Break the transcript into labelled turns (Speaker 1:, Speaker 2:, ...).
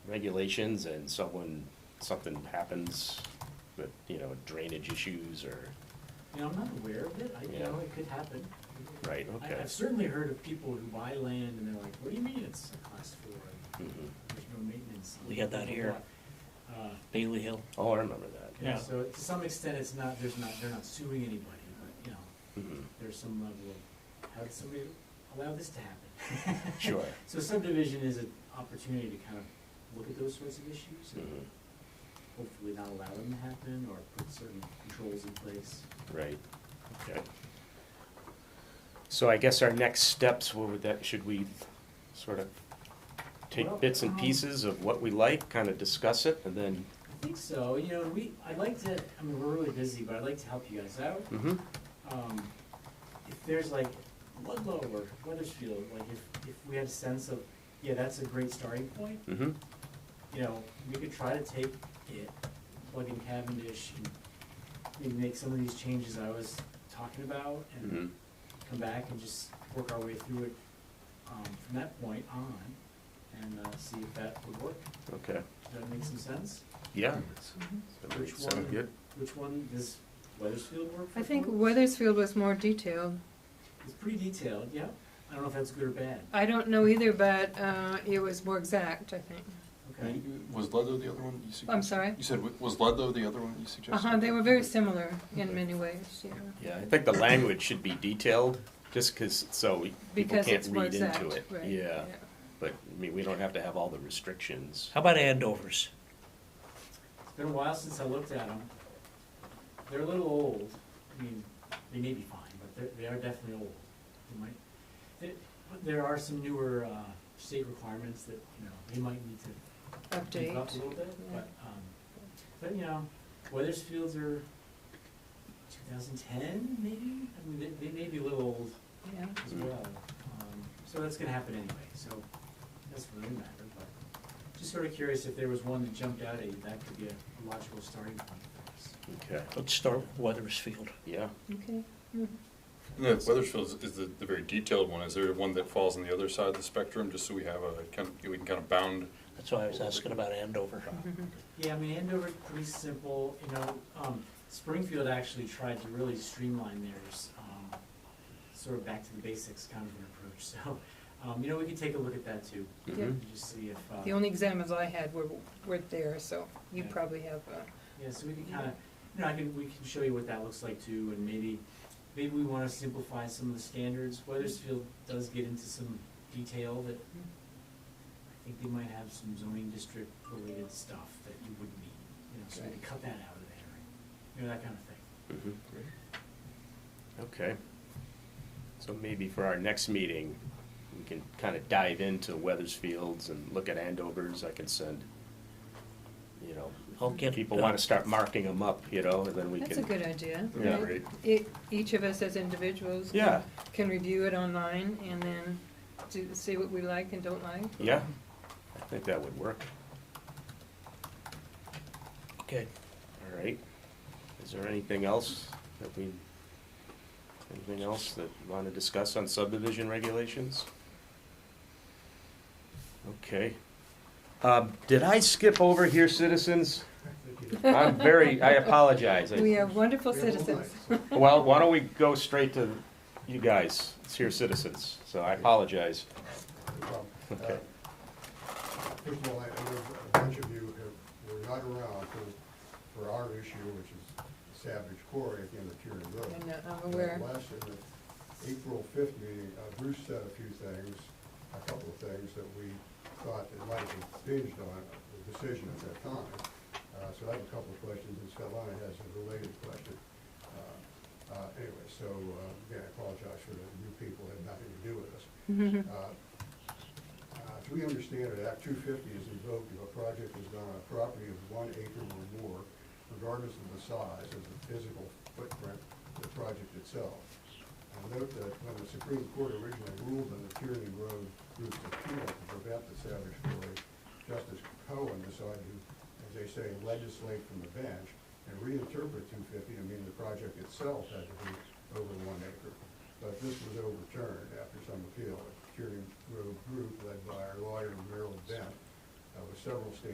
Speaker 1: regulations and someone, something happens with, you know, drainage issues or,
Speaker 2: You know, I'm not aware of it, I, you
Speaker 1: Yeah.
Speaker 2: know, it could happen.
Speaker 1: right,
Speaker 2: I,
Speaker 1: okay.
Speaker 2: I've certainly heard of people who buy land and they're like, what do you mean it's a class four, and
Speaker 1: Mhm.
Speaker 2: there's no maintenance?
Speaker 3: We got that here.
Speaker 2: Uh,
Speaker 3: Bailey Hill.
Speaker 1: Oh, I remember that.
Speaker 2: yeah,
Speaker 3: Yeah.
Speaker 2: so to some extent, it's not, there's not, they're not suing anybody, but, you know,
Speaker 1: Mhm.
Speaker 2: there's some level of, how did somebody allow this to happen?
Speaker 1: Sure.
Speaker 2: So subdivision is an opportunity to kind of look at those sorts of issues and
Speaker 1: Mhm.
Speaker 2: hopefully not allow them to happen or put certain controls in place.
Speaker 1: Right, okay. So I guess our next steps, what would that, should we sort of
Speaker 2: Well,
Speaker 1: take bits and
Speaker 2: um,
Speaker 1: pieces of what we like, kind of discuss it, and then,
Speaker 2: I think so, you know, we, I'd like to, I mean, we're really busy, but I'd like to help you guys out.
Speaker 1: Mhm.
Speaker 2: Um, if there's like Ludlow or Weathersfield, like if, if we had a sense of, yeah, that's a great starting point,
Speaker 1: Mhm.
Speaker 2: you know, we could try to take it, plug in Cavendish and maybe make some of these changes I was talking about and
Speaker 1: Mhm.
Speaker 2: come back and just work our way through it, um, from that point on and, uh, see if that would work.
Speaker 1: okay,
Speaker 2: Does that make some sense?
Speaker 1: yeah.
Speaker 2: Mm-hmm. Which
Speaker 1: Sound
Speaker 2: one?
Speaker 1: good?
Speaker 2: Which one does Weathersfield work for?
Speaker 4: I think
Speaker 2: folks?
Speaker 4: Weathersfield was more detailed.
Speaker 2: It's pretty detailed, yeah. I don't know if that's good or bad.
Speaker 4: I don't know either, but uh, it was more exact, I think.
Speaker 2: Okay.
Speaker 5: Was Ludlow the other one you suggested?
Speaker 4: I'm sorry?
Speaker 5: You said, wa- was Ludlow the other one you suggested?
Speaker 4: Uh-huh, they were very similar in many ways, yeah.
Speaker 1: Yeah, I think the language should be detailed, just because, so we- people
Speaker 4: Because
Speaker 1: can't
Speaker 4: it's more
Speaker 1: read
Speaker 4: exact,
Speaker 1: into it.
Speaker 4: right.
Speaker 1: Yeah, but, I mean, we don't have to have all the restrictions.
Speaker 3: How about Andovers?
Speaker 2: It's been a while since I looked at them. They're a little old. I mean, they may be fine, but they're, they are definitely old. They might, there- but there are some newer, uh, state requirements that, you know, they might need to beef up a
Speaker 4: Update.
Speaker 2: little bit,
Speaker 4: yeah.
Speaker 2: but, um, but, you know, Weathersfields are two thousand ten, maybe? I mean, they, they may be a little old.
Speaker 4: Yeah.
Speaker 2: as
Speaker 1: Mm.
Speaker 2: well. Um, So that's gonna happen anyway, so that's really matter, but just sort of curious if there was one that jumped out at you, that could be a a logical starting point for us.
Speaker 1: Okay,
Speaker 3: Let's start with Weathersfield.
Speaker 1: yeah,
Speaker 4: Okay. Mm.
Speaker 5: No, Weathersfield is- is the, the very detailed one. Is there one that falls on the other side of the spectrum, just so we have a, kind of, we can kind of bound?
Speaker 3: That's why I was asking about Andover.
Speaker 4: Mm-hmm.
Speaker 1: Mm-hmm.
Speaker 2: Yeah, I mean, Andover's pretty simple, you know, um, Springfield actually tried to really streamline theirs, um, sort of back to the basics kind of an approach, so, um, you know, we could take a look at that too.
Speaker 4: Yeah.
Speaker 1: Mhm.
Speaker 2: and Just see if, uh,
Speaker 4: The only examples I had were, were there, so you
Speaker 2: Yeah.
Speaker 4: probably have, uh,
Speaker 2: Yeah, so we can kind of, you know, I can, we can show you what that looks like too, and maybe, maybe we want to simplify some of the standards. Weathersfield does get into some detail that I think they might have some zoning district related stuff that you wouldn't need, you know, so we could cut that out of there, you know, that kind of thing.
Speaker 1: mhm. Okay. So maybe for our next meeting, we can kind of dive into Weathersfields and look at Andovers, I can send, you know,
Speaker 3: I'll get.
Speaker 1: people
Speaker 3: uh,
Speaker 1: want to start marking them up, you know, and then we can.
Speaker 4: that's a good idea.
Speaker 1: Yeah.
Speaker 4: right?
Speaker 5: Great.
Speaker 4: E- Each of us as individuals. can-
Speaker 1: Yeah.
Speaker 4: Can review it online and then do, see what we like and don't like.
Speaker 1: Yeah, I think that would work.
Speaker 3: Okay,
Speaker 1: All right. Is there anything else that we, anything else that we want to discuss on subdivision regulations? Okay. Um, Did I skip over here, citizens? I'm very, I apologize. I-
Speaker 4: We are wonderful citizens.
Speaker 1: Well, why don't we go straight to you guys, it's here, citizens, so I apologize.
Speaker 6: Well, uh,
Speaker 1: Okay.
Speaker 6: First of all, I I know a bunch of you have, were not around for, for our issue, which is Savage Quarry at the end of Kieran Road.
Speaker 4: I know, uh, I'm aware.
Speaker 6: But Last, in the April fifth meeting, uh, Bruce said a few things, a couple of things that we thought it might have binged on the decision at that time. Uh, so I have a couple of questions, and Scott has a related question. Uh, uh, Anyway, so, uh, again, I apologize for the new people, had nothing to do with us.
Speaker 4: Mm-hmm.
Speaker 6: Uh, uh, As we understand it, Act two fifty is invoked if a project is on a property of one acre or more, regardless of the size of the physical footprint of the project itself. And note that when the Supreme Court originally ruled on the Tierney Road route appeal to prevent the Savage Quarry, Justice Cohen decided to, as they say, legislate from the bench and reinterpret two fifty to mean the project itself had to be over one acre. But this was overturned after some appeal. The Curing Road Group led by our lawyer Merrill Bent uh, with several standards